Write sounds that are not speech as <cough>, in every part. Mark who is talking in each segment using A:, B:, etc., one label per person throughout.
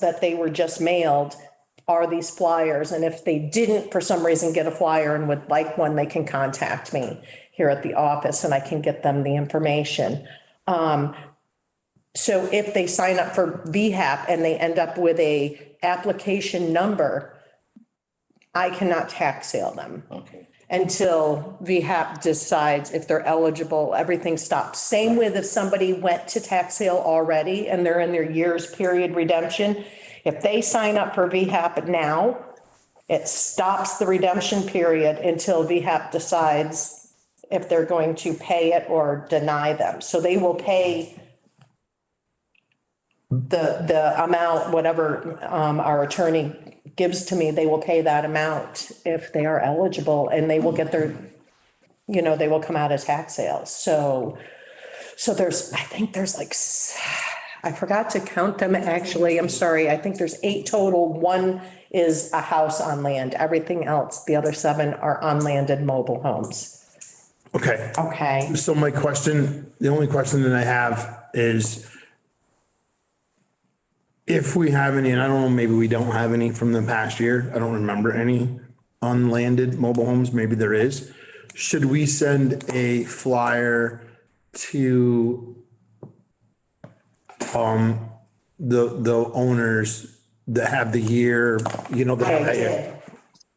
A: that they were just mailed are these flyers. And if they didn't, for some reason, get a flyer and would like one, they can contact me here at the office and I can get them the information. Um, so if they sign up for VHAP and they end up with a application number, I cannot tax sale them
B: Okay.
A: until VHAP decides if they're eligible, everything stops. Same with if somebody went to tax sale already and they're in their year's period redemption. If they sign up for VHAP now, it stops the redemption period until VHAP decides if they're going to pay it or deny them. So they will pay the, the amount, whatever um, our attorney gives to me, they will pay that amount if they are eligible and they will get their, you know, they will come out of tax sales. So, so there's, I think there's like, s- I forgot to count them actually. I'm sorry. I think there's eight total. One is a house on land. Everything else, the other seven are on land and mobile homes.
C: Okay,
A: Okay.
C: so my question, the only question that I have is if we have any, and I don't know, maybe we don't have any from the past year, I don't remember any unlanded mobile homes, maybe there is. Should we send a flyer to um, the, the owners that have the year, you know, that have
A: I
C: that year?
A: did.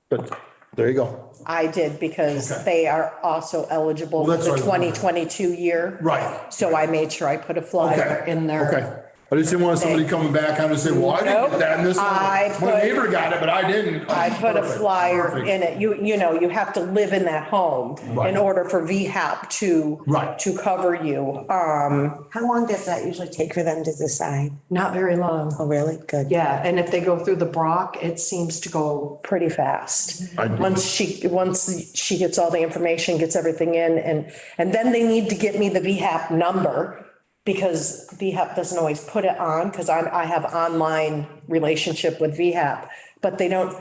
C: But there you go.
A: I did because they are also eligible for
C: Well, that's
A: the
C: what I wanted.
A: 2022 year.
C: Right.
A: So I made sure I put a flyer
C: Okay.
A: in there.
C: Okay. I just didn't want somebody coming back out and say, well, I didn't
A: Nope.
C: get that and this. one-
A: I
C: My
A: put-
C: neighbor got it, but I didn't. Oh,
A: I put a
C: Perfect.
A: flyer
C: Perfect.
A: in it. You, you know, you have to live in that home in
C: Right.
A: order for VHAP to.
C: Right.
A: To cover you. Um,
D: How long does that usually take for them to decide?
E: Not very long.
D: Oh, really? Good.
E: Yeah, and if they go through the Brock, it seems to go,
A: pretty fast.
C: I do.
A: Once she, once she gets all the information, gets everything in and, and then they need to get me the VHAP number because VHAP doesn't always put it on because I'm, I have online relationship with VHAP. But they don't,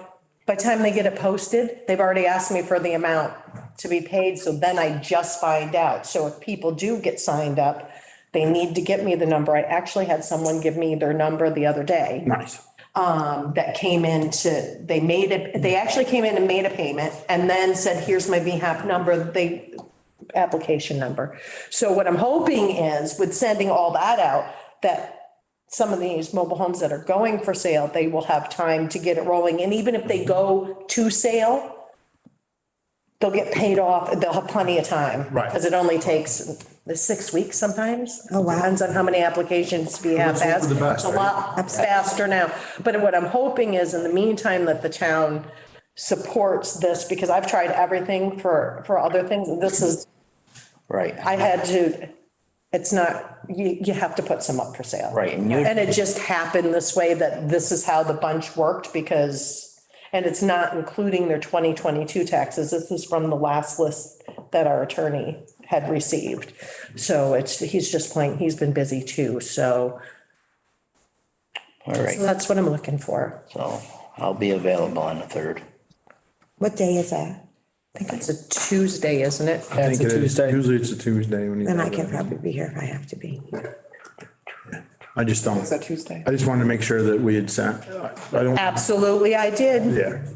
A: by the time they get it posted, they've already asked me for the amount to be paid. So then I just find out. So if people do get signed up, they need to get me the number. I actually had someone give me their number the other day
C: Nice.
A: um, that came in to, they made it, they actually came in and made a payment and then said, here's my VHAP number, they, application number. So what I'm hoping is with sending all that out, that some of these mobile homes that are going for sale, they will have time to get it rolling. And even if they go to sale, they'll get paid off, they'll have plenty of time.
C: Right.
A: Because it only takes the six weeks sometimes.
D: Oh, wow.
A: Depends on how many applications we have.
C: Let's hope for the
A: It's
C: best,
A: a
C: right?
A: lot faster now. But what I'm hoping is in the meantime that the town supports this because I've tried everything for, for other things. and This is,
B: Right,
A: I had to, it's not, you, you have to put some up for sale.
B: right. And you,
A: And it just happened this way that this is how the bunch worked because, and it's not including their 2022 taxes. This is from the last list that our attorney had received. So it's, he's just playing, he's been busy too. So
B: all right,
A: that's what I'm looking for.
B: so I'll be available on the third.
D: What day is that?
A: I think it's a Tuesday, isn't it?
C: I think it is. Usually it's a Tuesday when you.
D: Then I can probably be here if I have to be.
C: I just don't,
F: that Tuesday?
C: I just wanted to make sure that we had sent, I don't, yeah.
A: Absolutely, I did.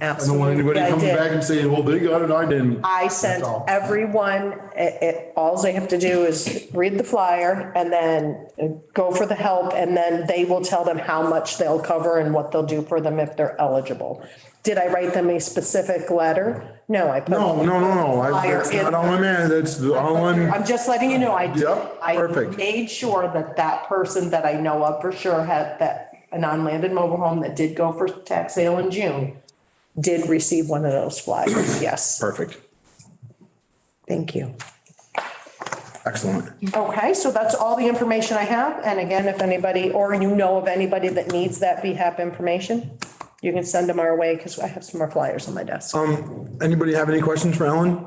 C: I don't want anybody
A: Absolutely, I
C: coming back
A: did.
C: and saying, well, they got it, I didn't.
A: I sent
C: all.
A: everyone, it, it, all they have to do is read the flyer and then uh, go for the help. And then they will tell them how much they'll cover and what they'll do for them if they're eligible. Did I write them a specific letter? No, I put.
C: No, no, no, no. I-
A: Flyer
C: That's
A: in
C: not all I'm at. That's the- all I'm,
A: I'm just letting you know, I. did-
C: Yep, perfect.
A: I made sure that that person that I know of for sure had that, an unlanded mobile home that did go for tax sale in June, did receive one of those
C: <clears throat>
A: flyers, yes.
C: perfect.
D: Thank you.
C: Excellent.
A: Okay, so that's all the information I have, and again, if anybody, or you know of anybody that needs that VHAP information, you can send them our way, because I have some more flyers on my desk.
C: Um, Anybody have any questions for Ellen?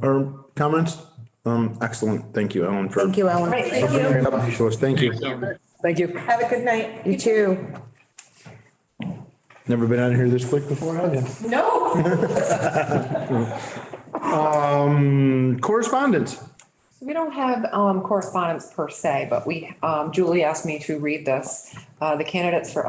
C: Or comments? Um, excellent. Thank you, Ellen, for.
D: Thank you, Ellen.
A: Great, thank you.
C: Thank you.
F: Thank you.
A: Have a good night.
D: You too.
C: Never been out here this quick before, have you?
A: No,
C: <laughs> Um, correspondence.
F: We don't have um, correspondence per se, but we, um, Julie asked me to read this. Uh, The candidates for